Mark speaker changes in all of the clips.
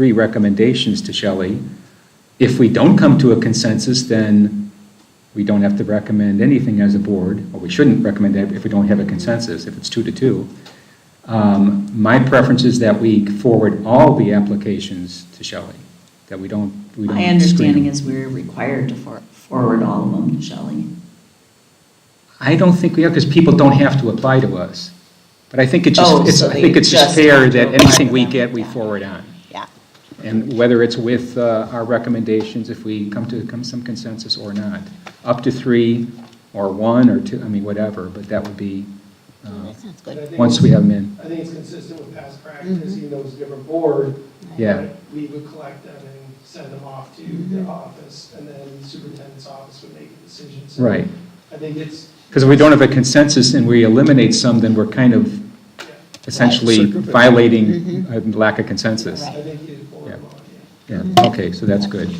Speaker 1: three recommendations to Shelley. If we don't come to a consensus, then we don't have to recommend anything as a board, or we shouldn't recommend it if we don't have a consensus, if it's two to two. Um, My preference is that we forward all the applications to Shelley, that we don't, we don't.
Speaker 2: My
Speaker 1: screen
Speaker 2: understanding
Speaker 1: them.
Speaker 2: is we're required to for- forward all of them to Shelley.
Speaker 1: I don't think we have, because people don't have to apply to us. But I think it's
Speaker 2: Oh,
Speaker 1: just, it's-
Speaker 2: so
Speaker 1: I
Speaker 2: they
Speaker 1: think it's just
Speaker 2: just have
Speaker 1: fair
Speaker 2: to
Speaker 1: that
Speaker 2: apply
Speaker 1: anything
Speaker 2: to
Speaker 1: we
Speaker 2: them.
Speaker 1: get, we
Speaker 2: Yeah.
Speaker 1: forward on.
Speaker 2: Yeah.
Speaker 1: And whether it's with uh, our recommendations, if we come to come some consensus or not. Up to three, or one, or two, I mean, whatever, but that would be, uh,
Speaker 3: Sounds
Speaker 4: But I think
Speaker 1: once we have them in.
Speaker 4: I think it's consistent with past practice, even though it's a different board.
Speaker 1: Yeah.
Speaker 4: but We would collect them and send them off to the office, and then the superintendent's office would make a decision. So
Speaker 1: Right.
Speaker 4: I think it's,
Speaker 1: Because if we don't have a consensus and we eliminate some, then we're kind of
Speaker 4: yeah,
Speaker 1: essentially violating a lack of consensus.
Speaker 4: I think you'd forward them on, yeah.
Speaker 1: Yeah, okay, so that's good.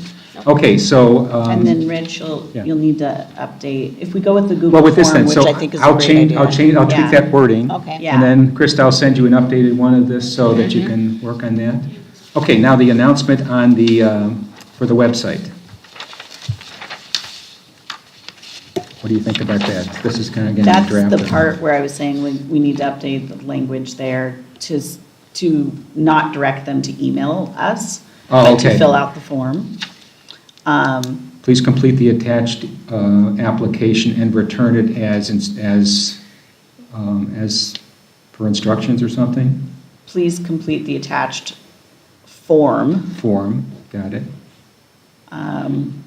Speaker 1: Okay, so. um,
Speaker 3: And then, Rich, you'll,
Speaker 1: yeah.
Speaker 3: you'll need to update, if we go with the Google
Speaker 1: Well, with this
Speaker 3: form,
Speaker 1: then,
Speaker 3: which
Speaker 1: so
Speaker 3: I think is a
Speaker 1: I'll
Speaker 3: great
Speaker 1: change,
Speaker 3: idea.
Speaker 1: I'll change, I'll tweak that wording.
Speaker 3: Okay.
Speaker 1: And then, Krista, I'll send you an updated one of this so that you
Speaker 3: Mm-hmm.
Speaker 1: can work on that. Okay, now the announcement on the, um, for the website. What do you think about that? This is kind of getting
Speaker 3: That's
Speaker 1: drafted.
Speaker 3: the part where I was saying we, we need to update the language there to, s- to not direct them to email us,
Speaker 1: Oh,
Speaker 3: but to
Speaker 1: okay.
Speaker 3: fill out the form. Um,
Speaker 1: Please complete the attached uh, application and return it as, ins- as, um, as per instructions or something?
Speaker 3: Please complete the attached form.
Speaker 1: Form, got it?
Speaker 3: um,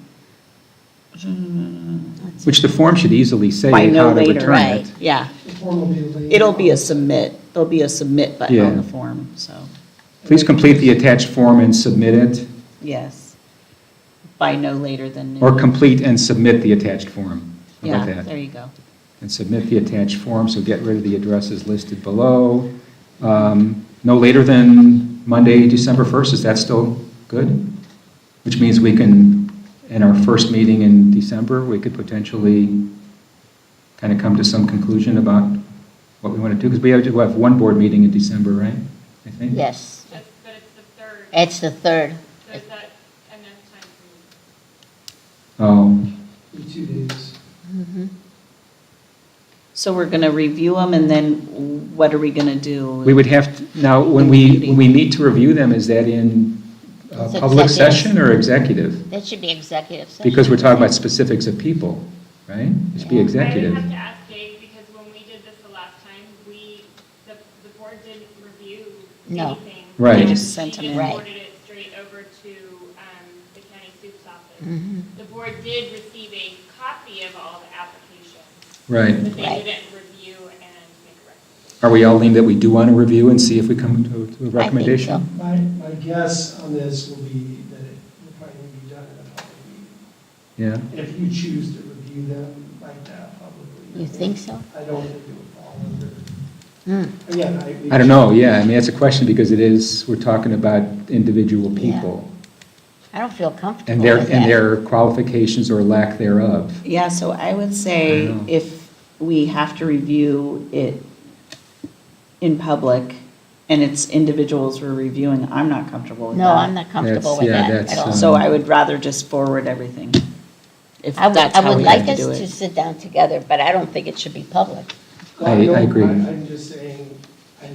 Speaker 1: Which the form should easily say
Speaker 3: By
Speaker 1: how
Speaker 3: no
Speaker 1: to
Speaker 3: later.
Speaker 1: return
Speaker 3: Right.
Speaker 1: it.
Speaker 3: Yeah,
Speaker 4: The form will be laid
Speaker 3: it'll be a
Speaker 4: out.
Speaker 3: submit, there'll be a submit button on
Speaker 1: Yeah.
Speaker 3: the form, so,
Speaker 1: Please complete the attached form and submit it,
Speaker 3: yes. By no later than noon.
Speaker 1: or complete and submit the attached form. How about
Speaker 3: Yeah, there
Speaker 1: that?
Speaker 3: you go.
Speaker 1: And submit the attached form, so get rid of the addresses listed below. Um, No later than Monday, December 1st, is that still good? Which means we can, in our first meeting in December, we could potentially kind of come to some conclusion about what we want to do, because we have, we'll have one board meeting in December, right? I think?
Speaker 5: Yes,
Speaker 6: That's, but it's the third,
Speaker 5: it's the third.
Speaker 6: so is that enough time for
Speaker 1: Oh.
Speaker 4: Be two days.
Speaker 3: Mm-hmm. So we're going to review them, and then what are we going to do?
Speaker 1: We would have, to- now, when we, when we meet to review them, is that in uh,
Speaker 5: It's
Speaker 1: public
Speaker 5: executive.
Speaker 1: session or executive?
Speaker 5: That should be executive session.
Speaker 1: Because we're talking about specifics of people, right? It should be
Speaker 5: Yeah.
Speaker 6: you? I
Speaker 1: executive.
Speaker 6: would have to ask Dave, because when we did this the last time, we, the, the board didn't review
Speaker 5: No.
Speaker 6: anything.
Speaker 1: Right. They
Speaker 6: And
Speaker 3: just sent them
Speaker 6: He
Speaker 3: in.
Speaker 6: just
Speaker 5: Right.
Speaker 6: forwarded it straight over to um, the county soup's office.
Speaker 5: Mm-hmm.
Speaker 6: The board did receive a copy of all the applications,
Speaker 1: Right.
Speaker 6: but they
Speaker 5: Right.
Speaker 6: didn't review and make a recommendation.
Speaker 1: Are we all leaning that we do want to review and see if we come to to a recommendation?
Speaker 4: My, my guess on this will be that it will probably be done in a public meeting.
Speaker 1: Yeah,
Speaker 4: And if you choose to review them like that publicly.
Speaker 5: You think so?
Speaker 4: I don't think it would fall under,
Speaker 5: Hmm.
Speaker 4: again, I.
Speaker 1: I don't know, yeah, I mean, that's a question because it is, we're talking about individual
Speaker 5: Yeah.
Speaker 1: people
Speaker 5: I don't feel comfortable
Speaker 1: and their,
Speaker 5: with
Speaker 1: and
Speaker 5: that.
Speaker 1: their qualifications or lack thereof.
Speaker 3: Yeah, so I would say
Speaker 1: I know.
Speaker 3: if we have to review it in public, and it's individuals we're reviewing, I'm not comfortable with that.
Speaker 5: No, I'm not comfortable
Speaker 1: That's-
Speaker 5: with
Speaker 1: yeah,
Speaker 5: that
Speaker 1: that's,
Speaker 5: at all.
Speaker 1: um,
Speaker 3: So I would rather just forward everything, if
Speaker 5: I would,
Speaker 3: that's
Speaker 5: I
Speaker 3: how
Speaker 5: would
Speaker 3: we
Speaker 5: like
Speaker 3: have to
Speaker 5: us
Speaker 3: do
Speaker 5: to
Speaker 3: it.
Speaker 5: sit down together, but I don't think it should be public.
Speaker 4: Well,
Speaker 1: I- I
Speaker 4: don't-
Speaker 1: agree.
Speaker 4: I'm just saying, I,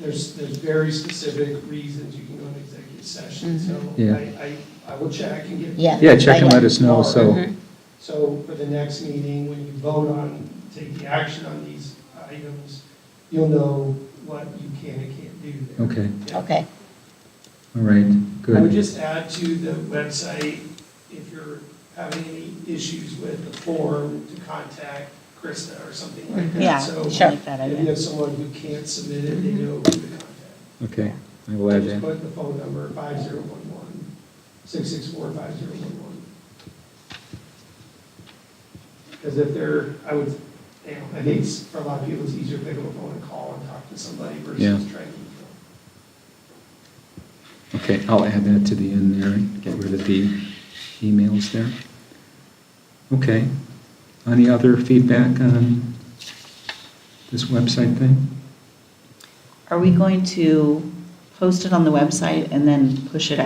Speaker 4: there's, there's very specific reasons you can go into executive session, so
Speaker 1: Yeah.
Speaker 4: I, I, I will check and get.
Speaker 5: Mm-hmm. Yeah.
Speaker 1: Yeah, check and let us know,
Speaker 4: Tomorrow.
Speaker 1: so,
Speaker 5: Mm-hmm.
Speaker 4: So for the next meeting, when you vote on, take the action on these items, you'll know what you can and can't do there.
Speaker 1: okay,
Speaker 4: Yeah.
Speaker 5: Okay,
Speaker 1: all right,
Speaker 4: I would
Speaker 1: good.
Speaker 4: just add to the website, if you're having any issues with the form, to contact Krista or something like that.
Speaker 3: Yeah,
Speaker 4: So
Speaker 3: I like that
Speaker 4: If you
Speaker 3: idea.
Speaker 4: have someone who can't submit it,
Speaker 5: Mm-hmm.
Speaker 4: they know who to contact.
Speaker 1: Okay, I will add
Speaker 4: Just
Speaker 1: that.
Speaker 4: put the phone number, 5011, 664-5011. Because if they're, I would, you know, I think it's- for a lot of people, it's easier to pick up a phone and call and talk to somebody
Speaker 1: Yeah.
Speaker 4: versus trying to.
Speaker 1: Okay, I'll add that to the end there, and get rid of the emails there. Okay. Any other feedback on this website thing?
Speaker 3: Are we going to post it on the website and then push it